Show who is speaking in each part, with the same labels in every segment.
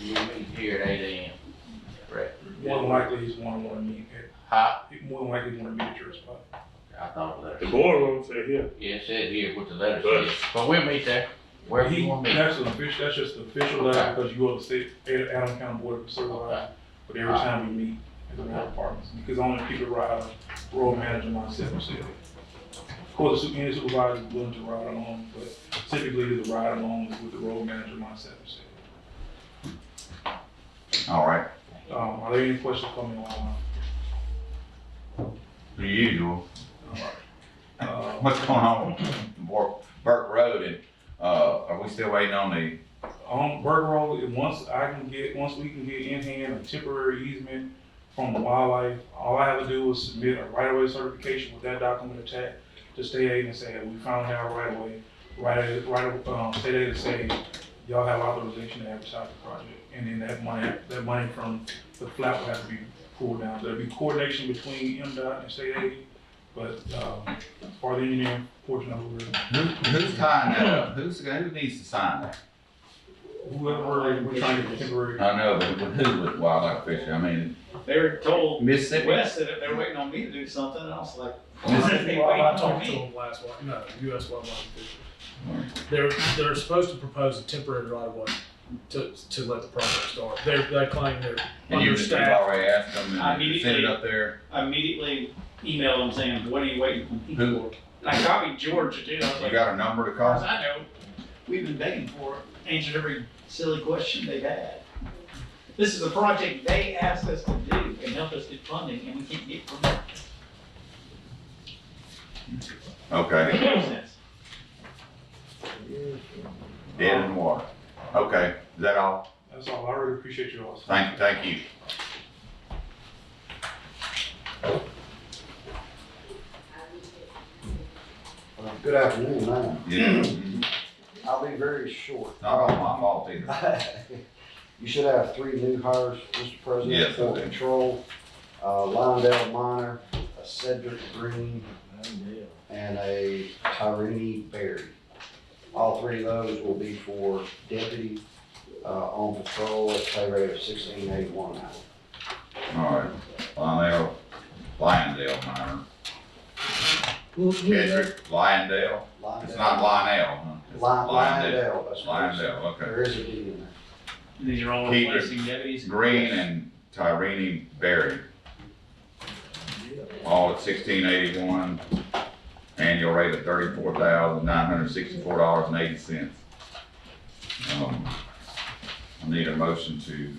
Speaker 1: You meet here at eight AM. Right.
Speaker 2: More than likely, he's one to want to meet,
Speaker 1: Huh?
Speaker 2: at- more than likely, he's going to meet at your spot.
Speaker 1: I thought the
Speaker 3: The
Speaker 1: letter.
Speaker 3: boardroom said here,
Speaker 1: Yeah, it said here what the letter says, but we'll meet there. Wherever
Speaker 2: He-
Speaker 1: you want me.
Speaker 2: That's an official, that's just the official letter, because you are the state, Ad- Adams County Board of Supervisors, but every time we meet, it's in our apartments, because only people ride, road manager, myself, so. Of course, the su- any supervisor is willing to ride along, but typically the ride along is with the road manager, myself, so.
Speaker 4: All right,
Speaker 2: Um, are there any questions coming on?
Speaker 4: the usual.
Speaker 2: Uh,
Speaker 4: What's going on with Burke, Burke Road and, uh, are we still waiting on the,
Speaker 2: On Um, Burger Road, and once I can get, once we can get in hand a temporary easement from the wildlife, all I have to do is submit a right-of-way certification with that document attached to state aid and say, we found our right-of-way, right, right, um, state aid to say, y'all have authorization to advertise the project. And then that money, that money from the flat will have to be pulled down. There'll be coordination between MDOT and state aid, but, um, for the engineering portion of it,
Speaker 4: who, who's tying that up? Who's, who needs to sign that?
Speaker 2: whoever we're trying to get temporary.
Speaker 4: I know, but who with wildlife fishery? I mean,
Speaker 5: They were told
Speaker 4: Mississippi.
Speaker 5: Wes that if they're waiting on me to do something, and I was like,
Speaker 4: This
Speaker 5: why are they waiting
Speaker 6: I
Speaker 5: on
Speaker 6: talked to
Speaker 5: me?
Speaker 6: them last week, no, US wildlife official. They're, they're supposed to propose a temporary right of way to, to let the project start. They're, they claim they're
Speaker 4: And you you've
Speaker 6: understaffed.
Speaker 4: already asked them
Speaker 5: I
Speaker 4: and they sent it
Speaker 5: immediately-
Speaker 4: up there.
Speaker 5: I Immediately emailed them saying, what are you waiting on me
Speaker 4: Who?
Speaker 5: for? I copied George too, I was
Speaker 4: You
Speaker 5: like, as
Speaker 4: got a number to
Speaker 5: far as
Speaker 4: call?
Speaker 5: I know, we've been begging for it, answered every silly question they've had. This is a project they asked us to do and help us get funding, and we can't get from them.
Speaker 4: Okay,
Speaker 5: Makes no sense.
Speaker 4: dead in the water. Okay, is that all?
Speaker 2: That's all. I really appreciate you all.
Speaker 4: Thank, thank you.
Speaker 7: Good afternoon, man.
Speaker 4: Yeah,
Speaker 7: I'll be very short.
Speaker 4: not all my fault either.
Speaker 7: You should have three new hires, Mr.
Speaker 4: Yes,
Speaker 7: President, for
Speaker 4: okay.
Speaker 7: control. Uh, Londell Minor, a Cedric Green, and a Tyrini Berry. All three of those will be for deputy, uh, on patrol at pay rate of sixteen eighty-one an hour.
Speaker 4: All right, Lionel, Liondale minor. Kendrick, Liondale? It's not Lionel, huh? It's Lyondale.
Speaker 7: Lindell, that's what it is.
Speaker 4: Lyondale, okay.
Speaker 7: There is a D in there.
Speaker 5: These are all
Speaker 4: Keep it
Speaker 5: replacing deputies.
Speaker 4: Green and Tyrini Berry. All at sixteen eighty-one, annual rate of thirty-four thousand nine hundred sixty-four dollars and eighty cents. Um, I need a motion to,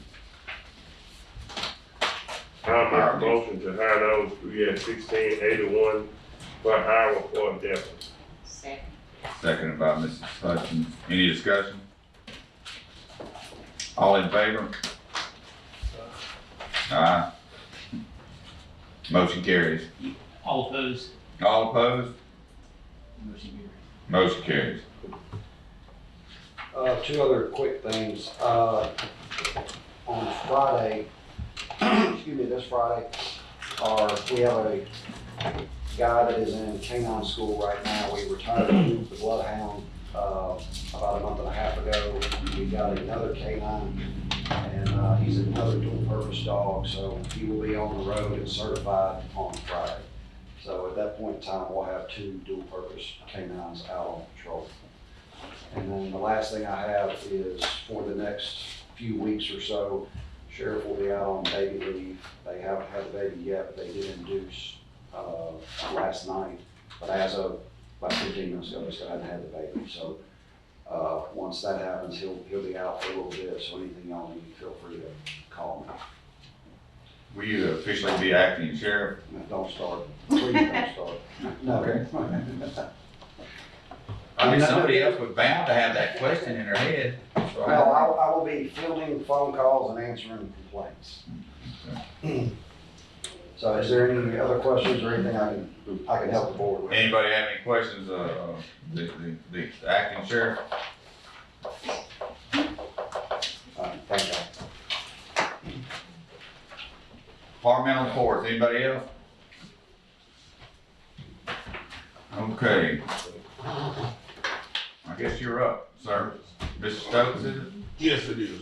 Speaker 3: I make a motion to hire those three at sixteen eighty-one per hour for a deputy.
Speaker 8: Second.
Speaker 4: seconded by Mrs. Hutchins. Any discussion? All in favor? Aye. Motion carries.
Speaker 5: All opposed.
Speaker 4: All opposed?
Speaker 5: Motion carries.
Speaker 4: Motion carries.
Speaker 7: Uh, two other quick things. Uh, on Friday, excuse me, this Friday, our, we have a guy that is in canine school right now. We retired him with the bloodhound, uh, about a month and a half ago. We got another canine and, uh, he's another dual-purpose dog, so he will be on the road and certified on Friday. So at that point in time, we'll have two dual-purpose canines out on patrol. And then the last thing I have is for the next few weeks or so, sheriff will be out on baby leave. They haven't had the baby yet, but they did induce, uh, last night. But as of about fifteen minutes ago, they still hadn't had the baby, so, uh, once that happens, he'll, he'll be out for a little bit, so anything y'all need, feel free to call me.
Speaker 4: Will you officially be acting sheriff?
Speaker 7: No, Don't start, please don't start.
Speaker 4: Okay.
Speaker 7: No.
Speaker 4: I mean, somebody else was bound to have that question in her head.
Speaker 7: Well, I, I will be fielding phone calls and answering complaints. So is there any other questions or anything I can, I can help the board with?
Speaker 4: Anybody have any questions, uh, the, the, the acting sheriff?
Speaker 7: Uh, Thank you.
Speaker 4: Departmental reports, anybody else? Okay. I guess you're up, sir. Mr. Stokes, is it?
Speaker 9: Yes, it is.